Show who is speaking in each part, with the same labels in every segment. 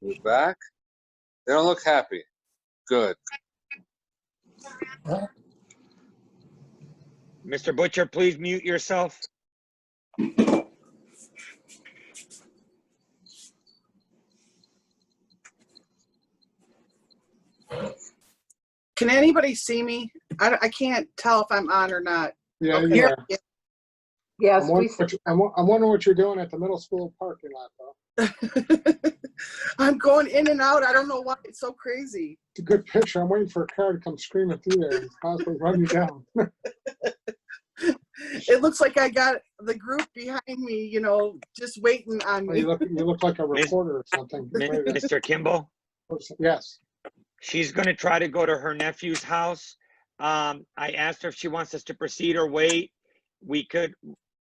Speaker 1: We're back. They don't look happy. Good.
Speaker 2: Mr. Butcher, please mute yourself.
Speaker 3: Can anybody see me? I, I can't tell if I'm on or not.
Speaker 4: Yeah, you
Speaker 3: Here-
Speaker 4: are.
Speaker 5: Yes,
Speaker 4: I'm
Speaker 5: we,
Speaker 4: wondering what you- I'm wo- I'm wondering what you're doing at the middle school parking lot, though.
Speaker 3: I'm going in and out. I don't know why. It's so crazy.
Speaker 4: It's a good picture. I'm waiting for a car to come screaming through there and possibly run you down.
Speaker 3: It looks like I got the group behind me, you know, just waiting on
Speaker 4: Oh,
Speaker 3: me.
Speaker 4: You look, you look like a reporter or something.
Speaker 2: Mi- Mr. Kimball,
Speaker 4: Yes.
Speaker 2: she's going to try to go to her nephew's house. Um, I asked her if she wants us to proceed or wait. We could,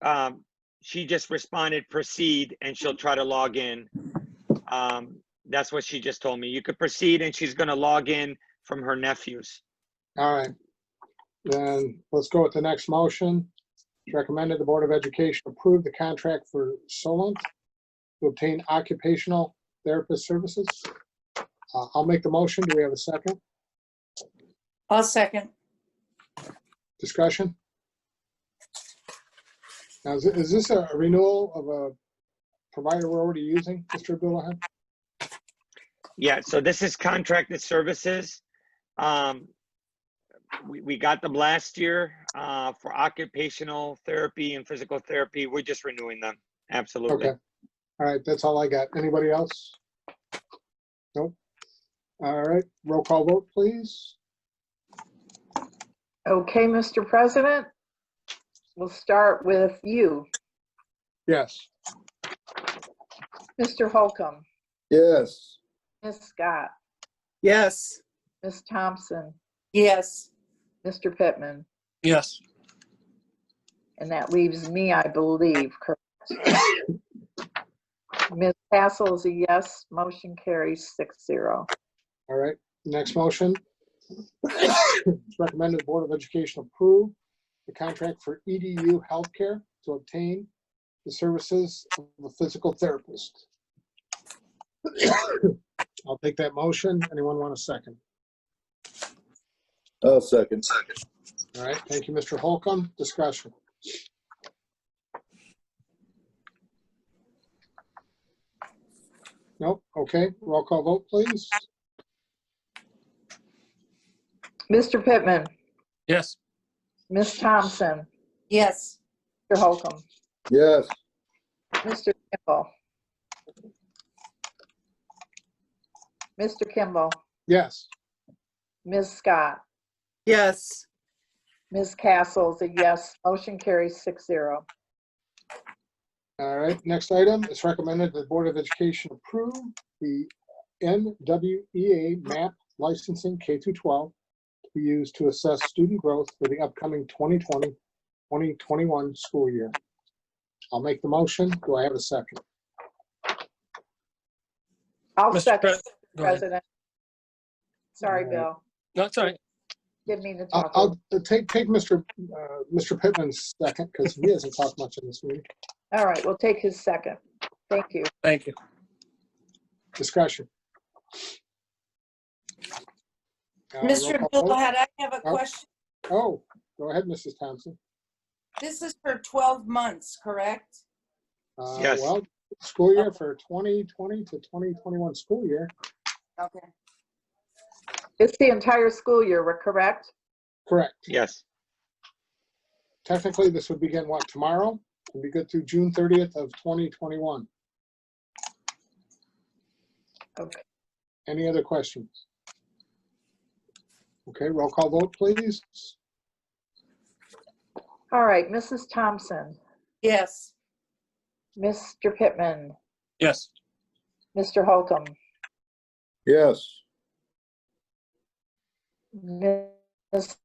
Speaker 2: um, she just responded, proceed, and she'll try to log in. Um, that's what she just told me. You could proceed and she's going to log in from her nephew's.
Speaker 4: All right. Then let's go with the next motion. It's recommended the Board of Education approve the contract for Solent to obtain occupational therapist services. Uh, I'll make the motion. Do we have a second?
Speaker 5: I'll second.
Speaker 4: Discussion? Now, is, is this a renewal of a provider we're already using, Mr. Abdullah?
Speaker 2: Yeah, so this is contracted services. Um, we, we got them last year, uh, for occupational therapy and physical therapy. We're just renewing them. Absolutely.
Speaker 4: Okay. All right, that's all I got. Anybody else? Nope. All right, roll call vote, please.
Speaker 5: Okay, Mr. President, we'll start with you,
Speaker 4: Yes.
Speaker 5: Mr. Holcomb,
Speaker 6: Yes.
Speaker 5: Ms. Scott,
Speaker 3: Yes.
Speaker 5: Ms. Thompson,
Speaker 7: Yes,
Speaker 5: Mr. Pittman,
Speaker 6: Yes.
Speaker 5: and that leaves me, I believe, correct? Ms. Hassel is a yes, motion carries six zero.
Speaker 4: All right, next motion. It's Recommended the Board of Education approve the contract for EDU healthcare to obtain the services of a physical therapist. I'll take that motion. Anyone want a second?
Speaker 6: I'll second.
Speaker 4: All right, thank you, Mr. Holcomb. Discussion. Nope, okay, roll call vote, please.
Speaker 5: Mr. Pittman,
Speaker 6: Yes.
Speaker 5: Ms. Thompson,
Speaker 7: yes,
Speaker 5: Mr. Holcomb,
Speaker 6: Yes.
Speaker 5: Mr. Kimball. Mr. Kimball,
Speaker 4: Yes.
Speaker 5: Ms. Scott,
Speaker 3: Yes.
Speaker 5: Ms. Castle is a yes. Motion carries six zero.
Speaker 4: All right, next item, it's recommended that the Board of Education approve the NWEA MAP licensing K through 12 to be used to assess student growth for the upcoming 2020, 2021 school year. I'll make the motion. Do I have a second?
Speaker 5: I'll
Speaker 8: Mr.
Speaker 5: second,
Speaker 8: Pres- Go ahead.
Speaker 5: President.
Speaker 4: All
Speaker 5: Sorry,
Speaker 4: right.
Speaker 5: Bill.
Speaker 8: No, it's all right.
Speaker 5: Didn't mean to
Speaker 4: I'll,
Speaker 5: talk. over-
Speaker 4: I'll take, take Mr. uh, Mr. Pittman's second because he hasn't talked much in this meeting.
Speaker 5: All right, we'll take his second. Thank you.
Speaker 8: Thank you.
Speaker 4: Discussion. Uh, roll call
Speaker 7: Mr.
Speaker 4: vote?
Speaker 7: Abdullah, I have a
Speaker 4: Oh.
Speaker 7: question.
Speaker 4: Oh, go ahead, Mrs. Thompson.
Speaker 7: This is for 12 months, correct?
Speaker 4: Uh,
Speaker 2: Yes.
Speaker 4: Well, school year for 2020 to 2021 school year.
Speaker 7: Okay.
Speaker 5: It's the entire school year, we're correct?
Speaker 4: Correct.
Speaker 2: Yes.
Speaker 4: Technically, this would begin what, tomorrow? And be good through June 30th of 2021.
Speaker 5: Okay.
Speaker 4: Any other questions? Okay, roll call vote, please.
Speaker 5: All right, Mrs. Thompson,
Speaker 7: Yes,
Speaker 5: Mr. Pittman,
Speaker 8: Yes.
Speaker 5: Mr. Holcomb,
Speaker 6: Yes.
Speaker 5: Ms.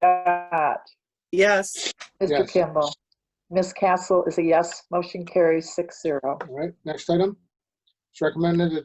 Speaker 5: Scott,
Speaker 3: Yes.
Speaker 5: Mr.
Speaker 4: Yes.
Speaker 5: Kimball. Ms. Castle is a yes. Motion carries six zero.
Speaker 4: All right, next item. It's recommended that